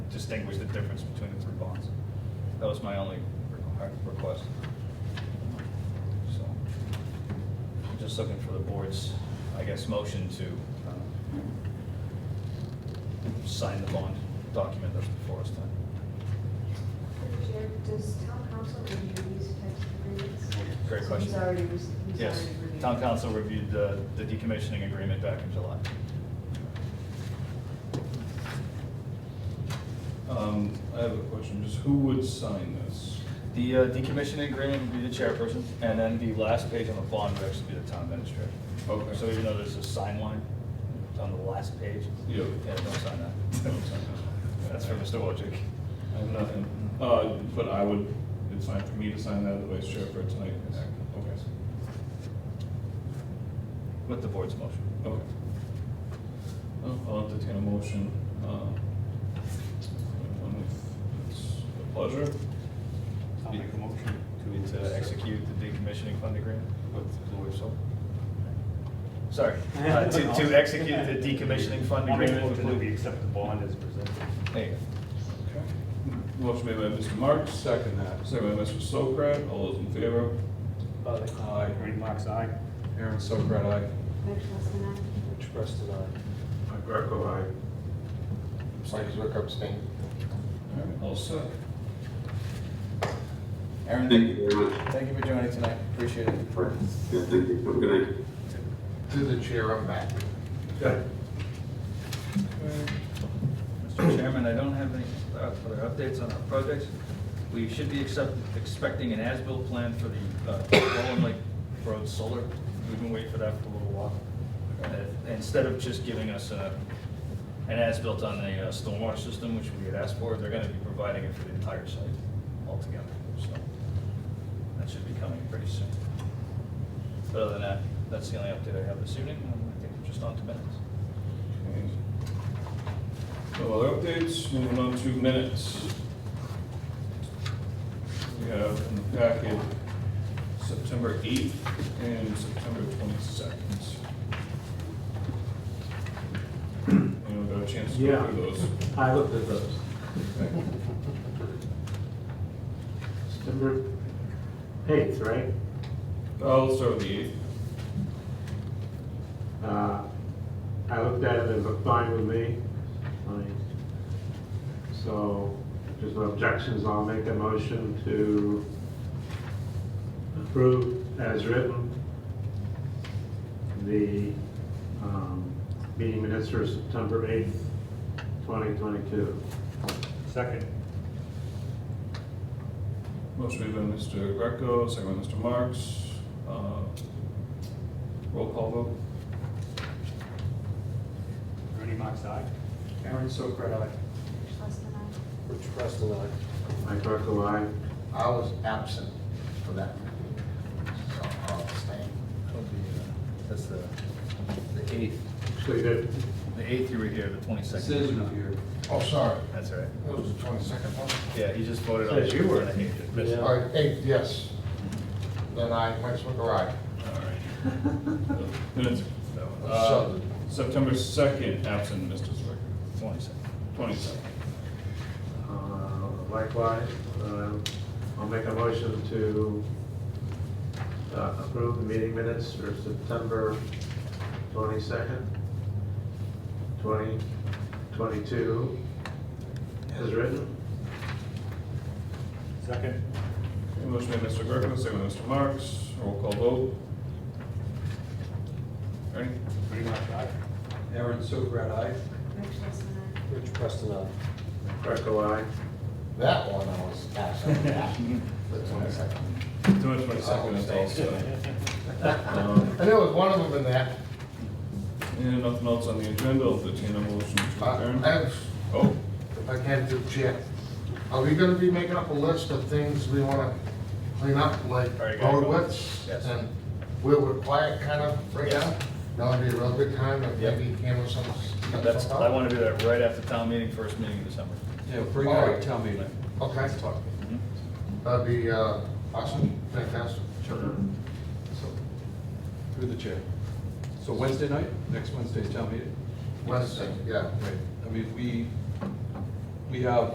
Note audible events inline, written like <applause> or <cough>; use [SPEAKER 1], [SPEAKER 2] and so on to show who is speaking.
[SPEAKER 1] distinguish the difference between the three bonds. That was my only requ- request. So, I'm just looking for the board's, I guess, motion to uh, sign the bond document that's before us tonight.
[SPEAKER 2] Chair, does town council review these types of agreements?
[SPEAKER 1] Great
[SPEAKER 2] So
[SPEAKER 1] question.
[SPEAKER 2] He's already, re- he's
[SPEAKER 1] Yes,
[SPEAKER 2] already reviewed.
[SPEAKER 1] town council reviewed the the decommissioning agreement back in July.
[SPEAKER 3] Um, I have a question, just who would sign this?
[SPEAKER 1] The uh, decommissioning agreement would be the chairperson, and then the last page on the bond would actually be the town administrator.
[SPEAKER 3] Okay.
[SPEAKER 1] So even though there's a sign line, it's on the last page.
[SPEAKER 3] Yeah.
[SPEAKER 1] Yeah, don't sign that. <laughs> Don't sign that. That's for Mr. Wojcik.
[SPEAKER 3] I have nothing, uh, but I would, it's fine for me to sign that, the vice chair for tonight. Okay.
[SPEAKER 1] With the board's motion.
[SPEAKER 3] Okay. Well, I'll entertain a motion, um, if it's a pleasure.
[SPEAKER 4] I'll make a motion uh,
[SPEAKER 1] To execute the decommissioning fund agreement with Blue Soul.
[SPEAKER 4] <laughs>
[SPEAKER 1] Sorry, <laughs> uh, to, to execute the decommissioning fund
[SPEAKER 4] I'll make a
[SPEAKER 1] agreement with
[SPEAKER 4] motion that we
[SPEAKER 1] Blue.
[SPEAKER 4] accept the bond as presented.
[SPEAKER 1] There you go.
[SPEAKER 3] Motion made by Mr. Marks. Second that. Second by Mr. Sokrat, all those in favor? Aye.
[SPEAKER 4] Ernie Mac's aye.
[SPEAKER 3] Aaron Sokrat, aye.
[SPEAKER 2] Mitch Lustenau?
[SPEAKER 5] Which press did I?
[SPEAKER 3] Mike Greco, aye.
[SPEAKER 5] Mike Zwick abstain.
[SPEAKER 3] All right, all set.
[SPEAKER 6] Aaron, thank you very much.
[SPEAKER 5] Thank you for joining tonight, appreciate it.
[SPEAKER 6] Yeah, thank you. Have a good night.
[SPEAKER 5] Through the chair, I'm back.
[SPEAKER 3] Okay.
[SPEAKER 1] Mr. Chairman, I don't have any uh, further updates on our projects. We should be accept- expecting an as-built plan for the uh, Roland Lake Road Solar. We've been waiting for that for a little while. Uh, Instead of just giving us uh, an as-built on the uh, stormwater system, which we had asked for, they're going to be providing it for the entire site altogether. So that should be coming pretty soon. But other than that, that's the only update I have this evening, and I think we're just on to minutes.
[SPEAKER 3] No other updates, moving on to minutes. We have in the packet September 8th and September 22nd. Anyone got a chance to go through those?
[SPEAKER 7] I looked at those. September eighth, right?
[SPEAKER 3] I'll start with the 8th.
[SPEAKER 7] Uh, I looked at it, it looked fine with me. Fine. So, if there's no objections, I'll make a motion to approve as written the um, meeting minutes for September eighth, twenty twenty-two.
[SPEAKER 4] Second.
[SPEAKER 3] Motion made by Mr. Greco, second by Mr. Marks. Uh, Roll call vote.
[SPEAKER 4] Ernie Mac's aye.
[SPEAKER 5] Aaron Sokrat, aye.
[SPEAKER 2] Mitch Lustenau?
[SPEAKER 5] Rich press did I?
[SPEAKER 7] Mike Buckle, aye.
[SPEAKER 8] I was absent for that, so I'll abstain.
[SPEAKER 1] uh, That's the, the eighth.
[SPEAKER 7] Actually, that,
[SPEAKER 1] The eighth you were here, the twenty-second.
[SPEAKER 8] Oh, sorry,
[SPEAKER 1] That's all right.
[SPEAKER 8] it was the twenty-second one.
[SPEAKER 1] Yeah, he just voted on.
[SPEAKER 7] Yes, you were. Yeah.
[SPEAKER 8] All right, eight, yes. Then I went to garage.
[SPEAKER 3] Minutes. Uh, September 2nd, absent Mr. Zwicker.
[SPEAKER 1] Twenty-second.
[SPEAKER 3] 27.
[SPEAKER 7] Uh, Likewise, uh, I'll make a motion to uh, approve the meeting minutes for September 22nd, 2022, as written.
[SPEAKER 4] Second.
[SPEAKER 3] Okay, Motion made by Mr. Greco, second by Mr. Marks. Roll call vote. Ernie?
[SPEAKER 4] Ernie Mac's aye.
[SPEAKER 5] Aaron Sokrat, aye.
[SPEAKER 2] Mitch Lustenau?
[SPEAKER 5] Rich press did I?
[SPEAKER 7] Greco, aye.
[SPEAKER 8] That one I was absent for that, the twenty-second.
[SPEAKER 3] September 22nd is also.
[SPEAKER 8] <laughs>
[SPEAKER 3] Um,
[SPEAKER 8] And there was one of them in that.
[SPEAKER 3] And nothing else on the agenda, I'll entertain a motion to
[SPEAKER 8] I-
[SPEAKER 3] adjourn.
[SPEAKER 8] I have-
[SPEAKER 3] Oh,
[SPEAKER 8] if I can do check. Are we gonna be making up a list of things we wanna clean up, like
[SPEAKER 1] Very good.
[SPEAKER 8] road widths?
[SPEAKER 1] Yes.
[SPEAKER 8] And where we're quiet kind of right
[SPEAKER 1] Yes.
[SPEAKER 8] now? That'll be a real good time, and
[SPEAKER 1] Yep.
[SPEAKER 8] maybe handle some.
[SPEAKER 1] That's, I want to do that right after town meeting, first meeting in December. Mm-hmm.
[SPEAKER 5] Yeah, bring it
[SPEAKER 8] All
[SPEAKER 5] up,
[SPEAKER 8] right.
[SPEAKER 5] tell me.
[SPEAKER 8] Okay. That'd be, uh, awesome, fantastic.
[SPEAKER 5] So, Through the chair. So Wednesday night, next Wednesday's town meeting?
[SPEAKER 8] Wednesday, yeah.
[SPEAKER 5] Right, I mean, we, we have